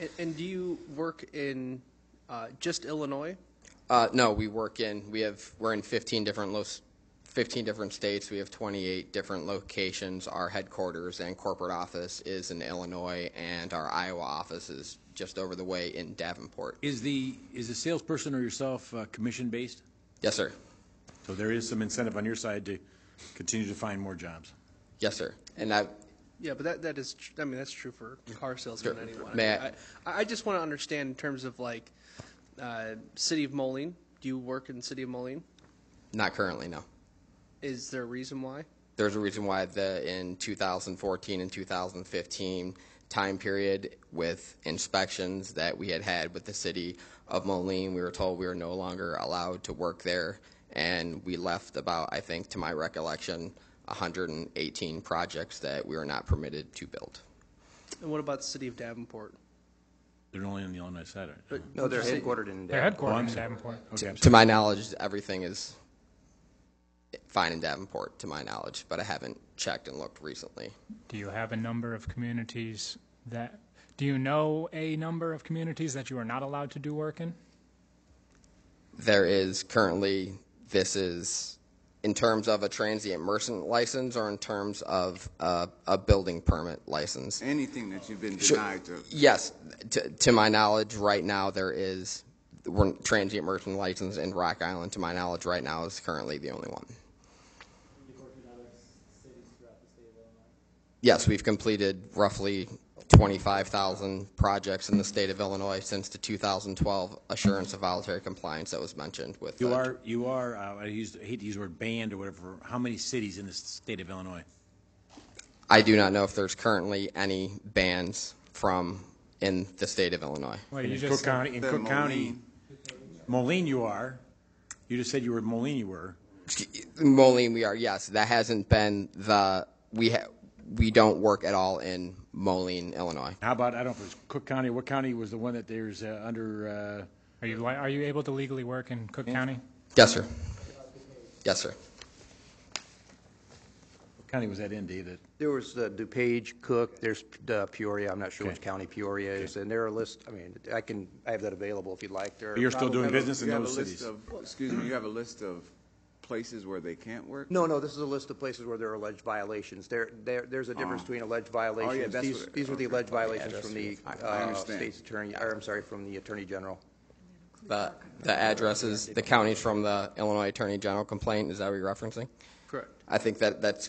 And, and do you work in uh, just Illinois? Uh, no, we work in, we have, we're in 15 different lo- 15 different states. We have 28 different locations. Our headquarters and corporate office is in Illinois, and our Iowa office is just over the way in Davenport. Is the, is the salesperson or yourself uh, commission-based? Yes, sir. So there is some incentive on your side to continue to find more jobs. Yes, sir. And I, Yeah, but that, that is, tr- I mean, that's true for car salesmen Sure. anyway. May I, I- I just want to understand in terms of like, uh, City of Moline, do you work in City of Moline? not currently, no. Is there a reason why? There's a reason why the, in 2014 and 2015 time period with inspections that we had had with the city of Moline, we were told we were no longer allowed to work there. And we left about, I think, to my recollection, 118 projects that we were not permitted to build. And what about the City of Davenport? They're only on the Illinois side. right? No, they're headquartered in They're Oh, Denver. I'm headquartered in sorry. Davenport. Okay, I'm To sorry. my knowledge, everything is fine in Davenport, to my knowledge, but I haven't checked and looked recently. Do you have a number of communities that, do you know a number of communities that you are not allowed to do work in? there is currently this is in terms of a transient merchant license or in terms of uh, a building permit license Anything that you've been denied to, yes to, to my knowledge right now there is we're, transient merchant license in rock island to my knowledge right now is currently the only one yes we've completed roughly 25,000 projects in the state of Illinois since the 2012 assurance of voluntary compliance that was mentioned with You the- are, you are, uh, I used- I hate to use the word banned or whatever, how many cities in the state of Illinois? I do not know if there's currently any bans from in the state of Illinois. Well, In you Cook just, County, in Then Cook County, Moline. Moline you are. You just said you were Moline you were. Moline, we are yes. That hasn't been the we ha- we don't work at all in Moline, Illinois. How about, I don't know if it was Cook County, what county was the one that there's uh, under, uh, are you, li- are you able to legally work in Cook County? Yes, sir. Yes, sir. what county was that in, Dave? that- There was uh, DuPage, Cook, there's uh, Peoria, I'm not sure which Okay. county Peoria is, and there are lists, I mean, I can, I have that available if you'd like. There are- You're still doing You have a- business in you have those a list cities? of- Excuse me, you have a list of places where they can't work? No, no, this is a list of places where there are alleged violations. There, there, there's a difference between alleged violations. that's These, what- these were the okay. alleged violations from the I- I uh, understand. state's attorney, or I'm sorry, from the Attorney General. The the addresses, the counties from the Illinois Attorney General complaint. Is that what you're referencing? Correct. I think that that's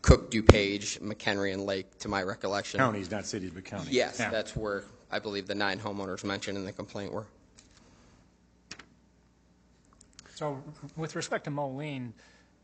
Cook, DuPage, McHenry, and Lake, to my recollection. Counties, not cities, but counties. Yes, Yeah. that's where I believe the nine homeowners mentioned in the complaint were. So with respect to Moline,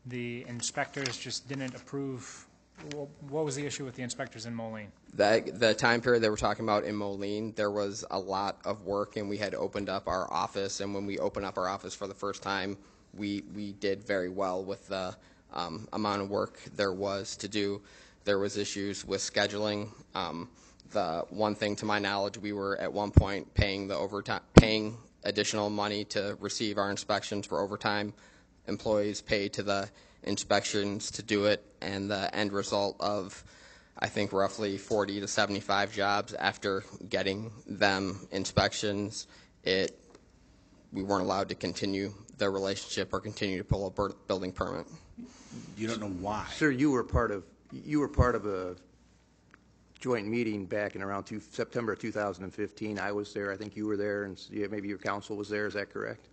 the inspectors just didn't approve, wh- what was the issue with the inspectors in Moline? That the time period that we're talking about in Moline, there was a lot of work, and we had opened up our office. And when we opened up our office for the first time, we we did very well with the um, amount of work there was to do. There was issues with scheduling. Um, the one thing, to my knowledge, we were at one point paying the overtime, paying additional money to receive our inspections for overtime employees pay to the inspections to do it, and the end result of, I think, roughly 40 to 75 jobs after getting them inspections, it, we weren't allowed to continue the relationship or continue to pull a bur- building permit. You don't know why. Sir, you were part of, you were part of a joint meeting back in around two, September of 2015. I was there, I think you were there, and s- yeah, maybe your counsel was there, is that correct?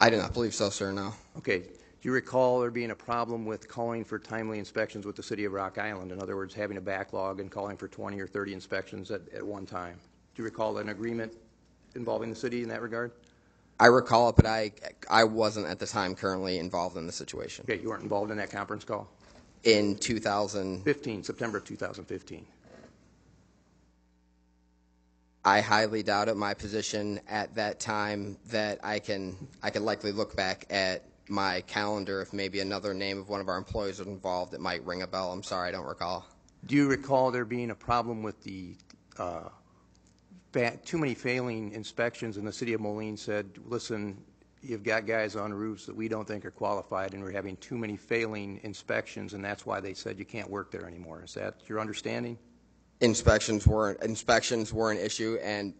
I do not believe so, sir, no. Okay, do you recall there being a problem with calling for timely inspections with the city of Rock Island? In other words, having a backlog and calling for 20 or 30 inspections at, at one time? Do you recall an agreement involving the city in that regard? I recall it, but I, I wasn't at the time currently involved in the situation. Okay, you weren't involved in that conference call? In 2000, 15, September of 2015. I highly doubt it. My position at that time that I can I could likely look back at my calendar if maybe another name of one of our employees was involved. It might ring a bell. I'm sorry, I don't recall. Do you recall there being a problem with the, uh, fa- too many failing inspections, and the city of Moline said, listen, you've got guys on roofs that we don't think are qualified, and we're having too many failing inspections, and that's why they said you can't work there anymore. Is that your understanding? Inspections were inspections were an issue, and